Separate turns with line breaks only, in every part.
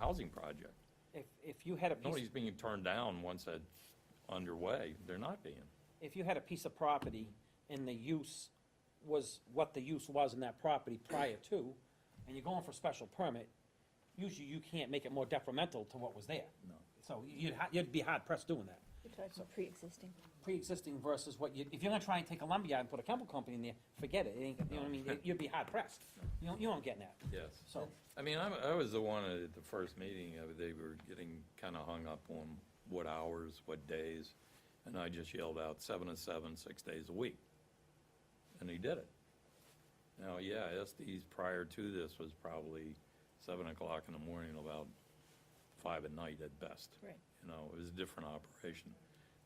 housing project.
If, if you had a piece,
Nobody's being turned down once that's underway. They're not being.
if you had a piece of property and the use was what the use was in that property prior to, and you're going for special permit, usually you can't make it more detrimental to what was there.
No.
So you'd, ha- you'd be hard pressed doing that.
You're talking pre-existing.
Pre-existing versus what you, if you're gonna try and take a lumberyard and put a chemical company in there, forget it, it ain't, you know what I mean, you'd be hard pressed. You don't, you don't get that,
Yes.
so.
I mean, I'm, I was the one at the first meeting, uh, they were getting kinda hung up on what hours, what days, and I just yelled out seven to seven, six days a week. And he did it. Now, yeah, SD's prior to this was probably seven o'clock in the morning, till about five at night at best.
Right.
You know, it was a different operation.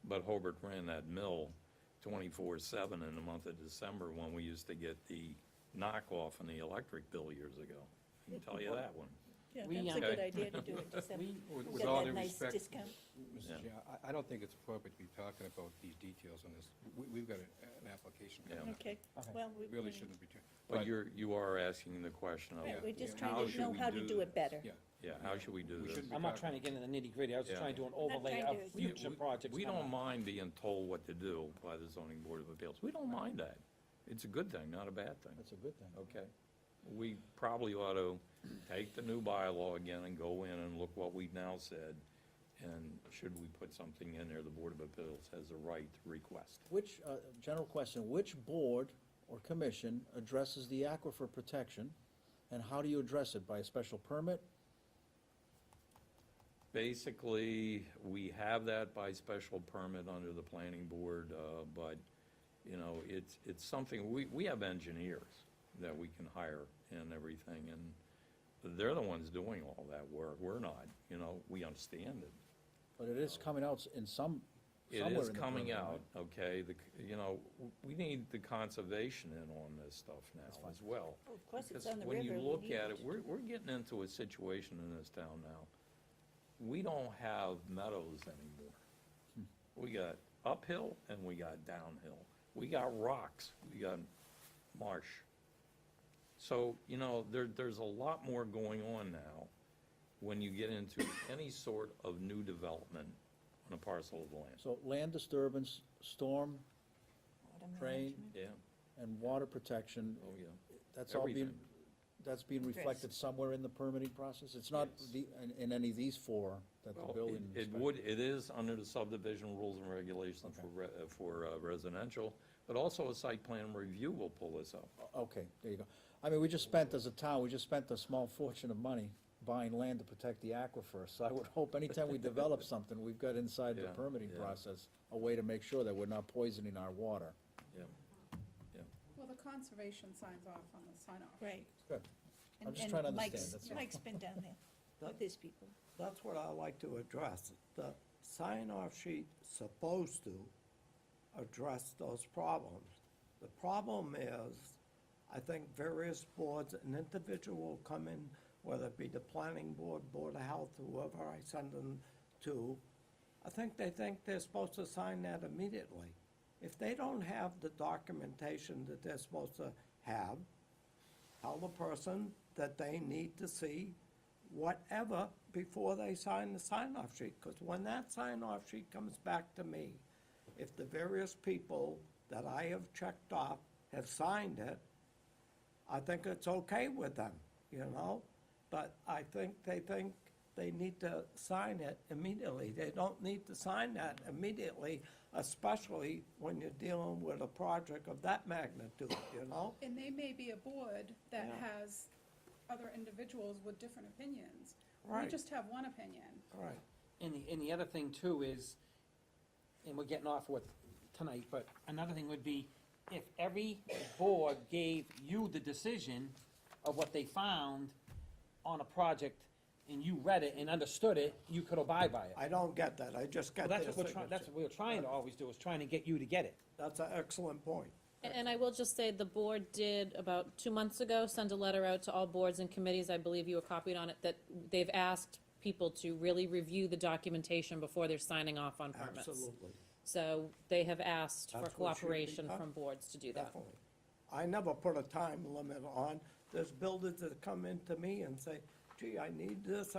But Hobart ran that mill twenty-four seven in the month of December when we used to get the knockoff on the electric bill years ago. I can tell you that one.
Yeah,
We,
that's
um,
a good idea to do it, just have,
We-
With
get
with all
that
due
nice
respect,
discount.
Yeah.
Mrs. Chair, I, I don't think it's appropriate to be talking about these details on this. We, we've got a- an application. coming
Yeah.
up.
Okay,
Okay.
well, we.
uh, We Really
we-
shouldn't be doing.
But you're, you are asking the question of,
Right, we're just
Yeah.
How
trying to
should
know
we
how to
do
do it better.
Yeah.
yeah, how should we do this?
We shouldn't be
I'm not trying
talking-
to get into the nitty gritty, I was just
Yeah.
trying to do an
not
overlay of
trying to-
We-
future
we-
projects.
We
coming
don't
up.
mind being told what to do by the zoning board of appeals. We don't mind that. It's a good thing, not a bad thing.
That's a good thing.
Okay. We probably ought to take the new bylaw again and go in and look what we've now said. And should we put something in there, the Board of Appeals has a right to request.
Which, uh, general question, which board or commission addresses the aquifer protection? And how do you address it? By a special permit?
Basically, we have that by special permit under the planning board, uh, but, you know, it's, it's something, we, we have engineers that we can hire and everything, and they're the ones doing all that work. We're not, you know, we understand it.
But it is coming out in some,
It
somewhere
is
in the
coming
permit, right?
out, okay, the, c- you know, w- we need the conservation in on this stuff now as well.
Well, Of course, it's
Because
on the river.
when you
we
look
need
at it, we're, we're getting into a situation in this town now. We don't have meadows anymore. We got uphill and we got downhill. We got rocks, we got marsh. So, you know, there, there's a lot more going on now when you get into any sort of new development on a parcel of land.
So land disturbance, storm,
Water
drain,
management.
Yeah,
and water protection,
oh, yeah.
that's all being,
Everything.
that's being
Addressed.
reflected somewhere in the permitting process? It's not
Yes.
the, in, in any of these four that the
Well,
building
it- It
inspector-
would, it is under the subdivision rules and regulations for, re- uh, for uh, residential, but also a site plan review will pull this up.
Okay, there you go. I mean, we just spent, as a town, we just spent a small fortune of money buying land to protect the aquifer, so I would hope anytime we develop something, we've got inside the
Yeah,
permitting
yeah.
process, a way to make sure that we're not poisoning our water.
Yeah,
Well, the conservation signs off on the sign off.
Right.
Good. I'm
And-
just
and
trying to understand,
Mike's-
that's all.
Mike's been down there with his people.
That's what I like to address. The sign-off sheet supposed to address those problems. The problem is, I think various boards, an individual come in, whether it be the planning board, board of health, whoever I send them to, I think they think they're supposed to sign that immediately. If they don't have the documentation that they're supposed to have, tell the person that they need to see whatever before they sign the sign-off sheet, because when that sign-off sheet comes back to me, if the various people that I have checked off have signed it, I think it's okay with them, you know? But I think they think they need to sign it immediately. They don't need to sign that immediately, especially when you're dealing with a project of that magnitude, you know?
And they may be a board that
Yeah.
has other individuals with different opinions. We
Right.
just have one opinion.
All right.
And the, and the other thing too is, and we're getting off with tonight, but another thing would be, if every board gave you the decision of what they found on a project, and you read it and understood it, you could abide by it.
I don't get that, I just
Well,
get their
that's what we're
signature.
trying, that's what we're trying to always do, is trying to get you to get it.
That's an excellent point.
And- And I will just say, the board did, about two months ago, send a letter out to all boards and committees, I believe you were copied on it, that they've asked people to really review the documentation before they're signing off on permits.
Absolutely,
So they have asked for
That's what should be
cooperation
done.
from boards to do that.
definitely. I never put a time limit on, there's builders that come into me and say, gee, I need this,